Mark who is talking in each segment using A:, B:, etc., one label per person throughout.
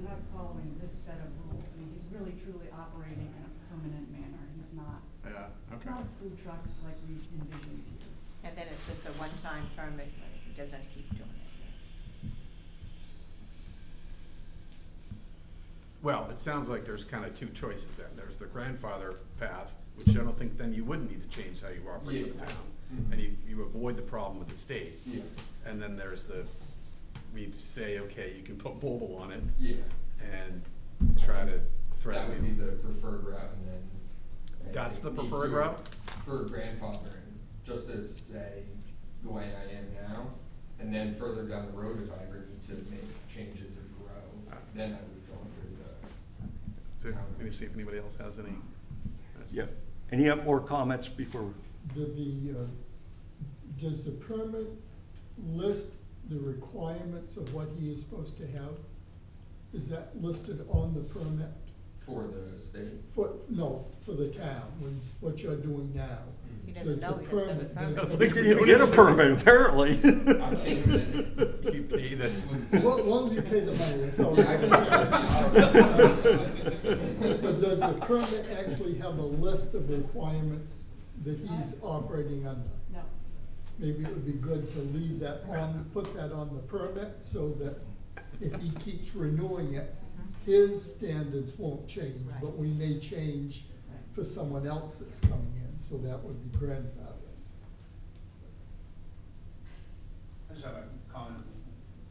A: not following this set of rules, I mean, he's really truly operating in a permanent manner, he's not,
B: Yeah,
A: it's
B: okay.
A: not a food truck like we envisioned here.
C: And then it's just a one-time permit, but he doesn't keep doing it.
B: Well, it sounds like there's kind of two choices then. There's the grandfather path, which I don't think then you wouldn't need to change how you operate with the
D: Yeah.
B: town.
D: Mhm.
B: And you, you avoid the problem with the state.
D: Yeah,
B: And then there's the, we say, okay, you can put Boble on it
D: yeah.
B: and try to
D: That
B: threaten
D: would be
B: him.
D: the preferred route and then. I
B: That's
D: think
B: the
D: me
B: preferred
D: too,
B: route?
D: For grandfathering, just as say, the way I am now, and then further down the road, if I ever need to make changes or grow,
B: Ah.
D: then I would go under
B: So, let me see if anybody else has any.
E: Yeah. Any up more comments before,
F: Do the, uh, does the permit list the requirements of what he is supposed to have? Is that listed on the permit?
D: the, for the state.
F: For, no, for the town, when, what you're doing now?
C: He
F: Does
C: doesn't
F: the
C: know he doesn't have a
F: permit-
C: permit.
B: Sounds
E: they didn't even get a permit, apparently.
D: I came in.
B: You pay the,
F: As long- as long as you pay the money, that's all.
D: Yeah, I believe it.
F: But does the permit actually have a list of requirements that he's operating under?
A: No,
F: Maybe it would be good to leave that on, put that on the permit so that if he keeps renewing it, his standards won't change, but we may change
A: right.
F: for someone else that's coming in, so that would be grandfathered.
G: I just have a comment,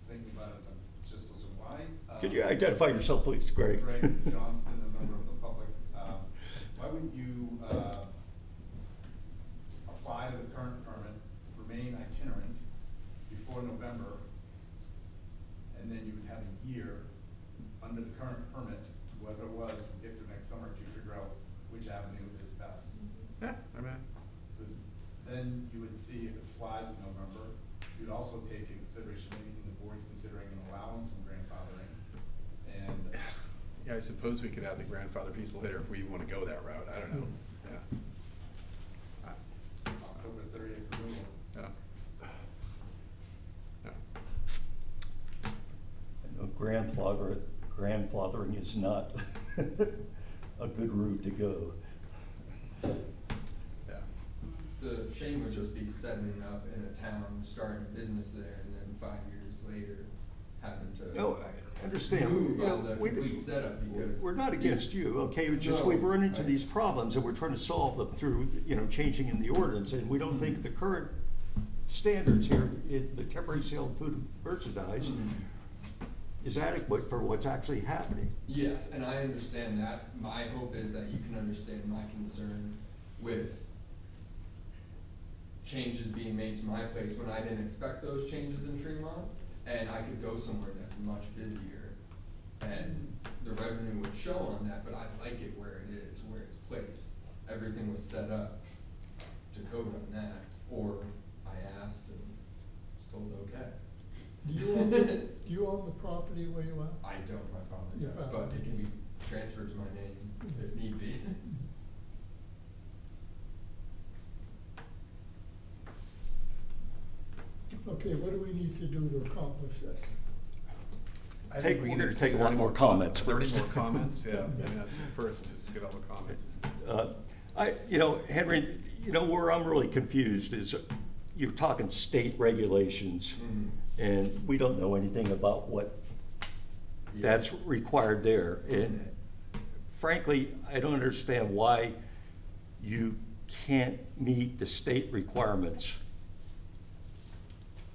G: thinking about it, I'm just listening, why? uh,
E: Could you identify yourself, please, Greg?
G: Greg Johnston, a member of the public, um, why wouldn't you, uh, apply to the current permit, remain itinerant before November, and then you would have a year under the current permit, whether it was, get to next summer to figure out which avenue is best.
B: yeah, I mean,
G: Because then you would see if it flies in November, you'd also take into consideration, maybe the board's considering an allowance and grandfathering. And
B: yeah, I suppose we could add the grandfather piece later if we want to go that route. I don't know. Yeah.
G: October thirtieth removal.
B: Yeah. Yeah.
E: No, Grandfather, grandfathering is not a good route to go.
B: Yeah.
D: The shame would just be setting up in a town, starting a business there, and then five years later, having to.
E: No, I understand.
D: Move
E: You know,
D: on the
E: we-
D: complete setup because.
E: We're not against you, okay, it's just we've run into these problems and we're trying to solve them through, you know, changing in the ordinance. And we don't think the current standards here, in the temporary sale of food and merchandise
D: Mm-hmm.
E: is adequate for what's actually happening.
D: Yes, and I understand that. My hope is that you can understand my concern with changes being made to my place when I didn't expect those changes in Tremont, and I could go somewhere that's much busier, and the revenue would show on that, but I like it where it is, where it's placed. Everything was set up to code on that, or I asked and was told, okay.
F: Do you own, do you own the property where you are?
D: I don't, my father
F: Your
D: does,
F: father.
D: but it can be transferred to my name if need be.
F: Okay, what do we need to do to accomplish this?
B: I
E: Take-
B: think we
E: we're
B: need
E: gonna take a
B: 30
E: lot more comments
B: Thirty
E: first.
B: more comments, yeah, I mean, that's first, just get all the comments.
E: Uh, I, you know, Henry, you know, where I'm really confused is you're talking state regulations
D: Mhm.
E: and we don't know anything about what
D: Yeah.
E: that's required there. And frankly, I don't understand why you can't meet the state requirements.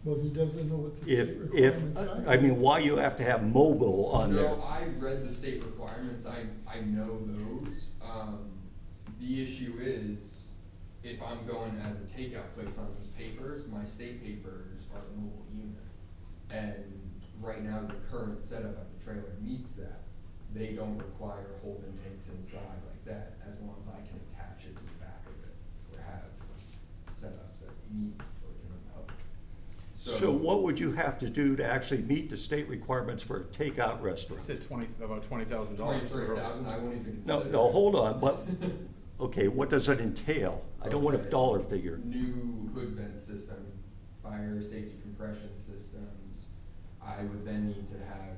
F: Well, he doesn't know what the
E: If,
F: state
E: if,
F: requirements are.
E: I mean, why you have to have mobile on there?
D: No, I read the state requirements, I, I know those, um, the issue is, if I'm going as a takeout place on those papers, my state papers are a mobile unit. And right now, the current setup on the trailer meets that, they don't require holding tanks inside like that, as long as I can attach it to the back of it, or have setups that meet or can help.
E: So what would you have to do to actually meet the state requirements for a takeout
B: They
E: restaurant?
B: said twenty, about twenty thousand dollars.
D: Twenty-three thousand, I won't even
E: No,
D: consider.
E: no,
D: it.
E: hold on, but, okay, what does it entail? I don't want a
D: Okay.
E: dollar figure.
D: New hood vent system, fire safety compression systems. I would then need to have